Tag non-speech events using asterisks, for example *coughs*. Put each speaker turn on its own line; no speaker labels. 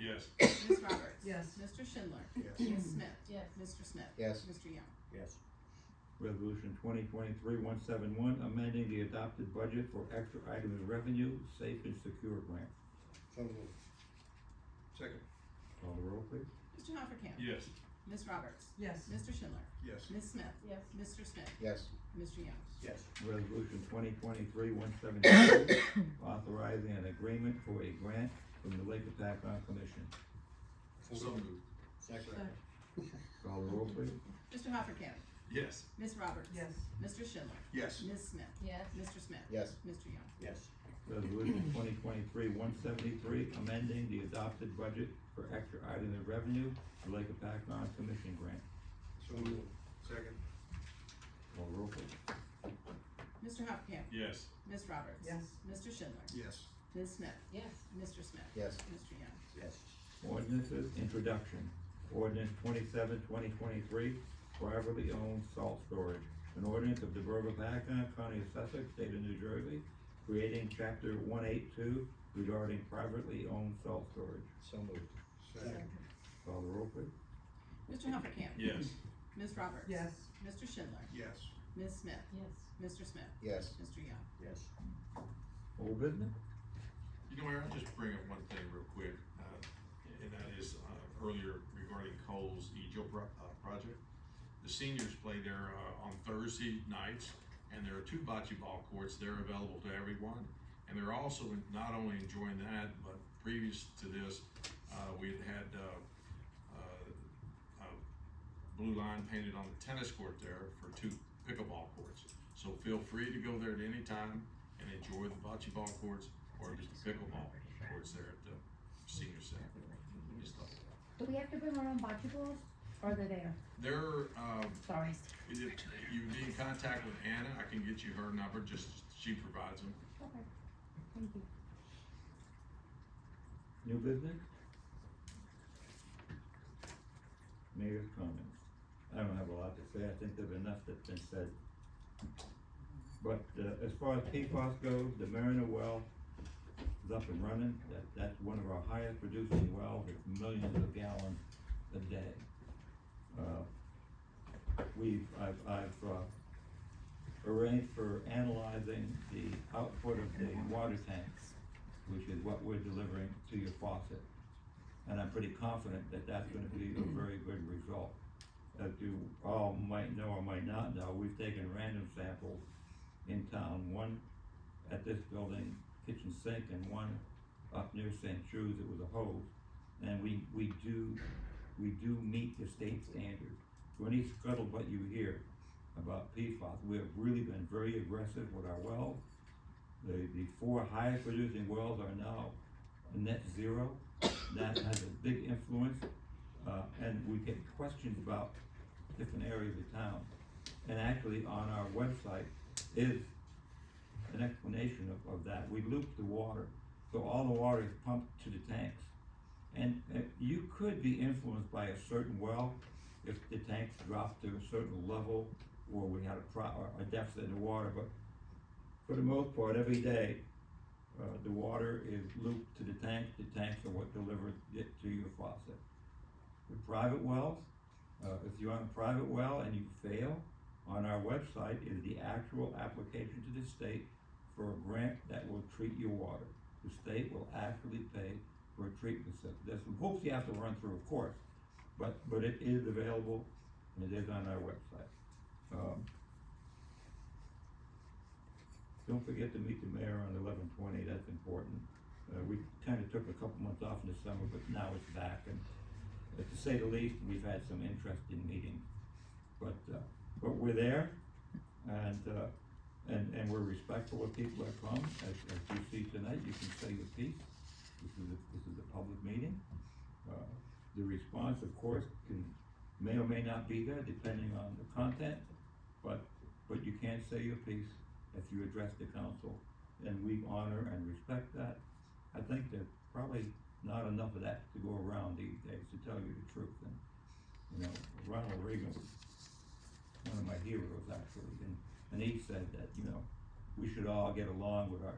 Yes.
Ms. Roberts.
Yes.
Mr. Schindler.
Yes.
Ms. Smith.
Yes.
Mr. Smith.
Yes.
Mr. Young.
yes,
Resolution twenty twenty-three one seven one, amending the adopted budget for extra items revenue, safe and secure grant.
So moved.
second,
Call the roll, please.
Mr. Hoppercamp.
Yes.
Ms. Roberts.
Yes.
Mr. Schindler.
yes,
Ms. Smith.
Yes.
Mr. Smith.
Yes.
Mr. Young.
yes,
Resolution twenty twenty-three one *coughs* seventy-two, authorizing an agreement for a grant from the Lake Attackon Commission.
So moved.
Second.
Call the roll, please.
Mr. Hoppercamp.
Yes.
Ms. Roberts.
Yes.
Mr. Schindler.
yes,
Ms. Smith.
Yes.
Mr. Smith.
Yes.
Mr. Young.
yes,
Resolution twenty twenty-three one seventy-three, amending the adopted budget for extra items of revenue, the Lake Attackon Commission grant.
So moved.
second,
Call the roll, please.
Mr. Hoppercamp.
Yes.
Ms. Roberts.
Yes.
Mr. Schindler.
yes,
Ms. Smith.
Yes.
Mr. Smith.
Yes.
Mr. Young.
yes,
Ordinances, introduction. Ordinance 27 2023, privately owned salt storage. An ordinance of the Borough of Paccon, County of Sussex, State of New Jersey, creating chapter one eight two regarding privately owned salt storage.
So moved.
second,
Call the roll, please.
Mr. Hoppercamp.
Yes.
Ms. Roberts.
Yes.
Mr. Schindler.
yes,
Ms. Smith.
Yes.
Mr. Smith.
Yes.
Mr. Young.
yes,
Old business?
You know, Aaron, I'll just bring up one thing real quick, uh, and that is, uh, earlier regarding Cole's Egypt pro- uh, project. The seniors play there, uh, on Thursday nights, and there are two bocce ball courts, they're available to everyone. And they're also en- not only enjoying that, but previous to this, uh, we had had, uh, uh, uh, blue line painted on the tennis court there for two pickleball courts. So feel free to go there at any time and enjoy the bocce ball courts or just the pickleball courts there at the senior center. Just thought-
Do we have to bring our own bocce balls, or are they there?
There, um,
Sorry.
if you be in contact with Anna, I can get you her number, just, she provides them.
Okay, thank you.
New business? Mayor's comments. I don't have a lot to say, I think there's enough that's been said. But, uh, as far as PFAS goes, the Mariner well is up and running, that, that's one of our highest producing wells, it's millions of gallons a day. Uh, We've, I've, I've, uh, arranged for analyzing the output of the water tanks which is what we're delivering to your faucet. And I'm pretty confident that that's gonna be a very good result. As you all might know or might not know, we've taken random samples in town, one at this building, kitchen sink, and one up near St. Jude's, it was a hose. And we, we do, we do meet the state standard. So any scuttlebutt you hear about PFAS, we have really been very aggressive with our wells. The, the four highest producing wells are now net zero. That has a big influence, uh, and we get questions about different areas of town. And actually, on our website is an explanation of, of that. We loop the water, so all the water is pumped to the tanks. And, uh you could be influenced by a certain well if the tanks dropped to a certain level or we had a pro, or a deficit in the water, but for the most part, every day, uh, the water is looped to the tank, the tanks are what delivers it to your faucet. With private wells, uh, if you're on a private well and you fail, on our website is the actual application to the state for a grant that will treat your water. The state will actually pay for a treatment system. There's some hoops you have to run through, of course, but, but it is available and it is on our website. Um, don't forget to meet the mayor on eleven twenty, that's important. Uh, we kinda took a couple months off in the summer, but now it's back, and uh, to say the least, we've had some interesting meetings. But, uh, but we're there, and, uh, and, and we're respectful of people that come, as, as you see tonight, you can say your piece. This is a, this is a public meeting. Uh, The response, of course, can, may or may not be there, depending on the content, but, but you can say your piece if you address the council, and we honor and respect that. I think there's probably not enough of that to go around these days, to tell you the truth, and, you know, Ronald Reagan was one of my heroes, actually, and, and he said that, you know, we should all get along with our,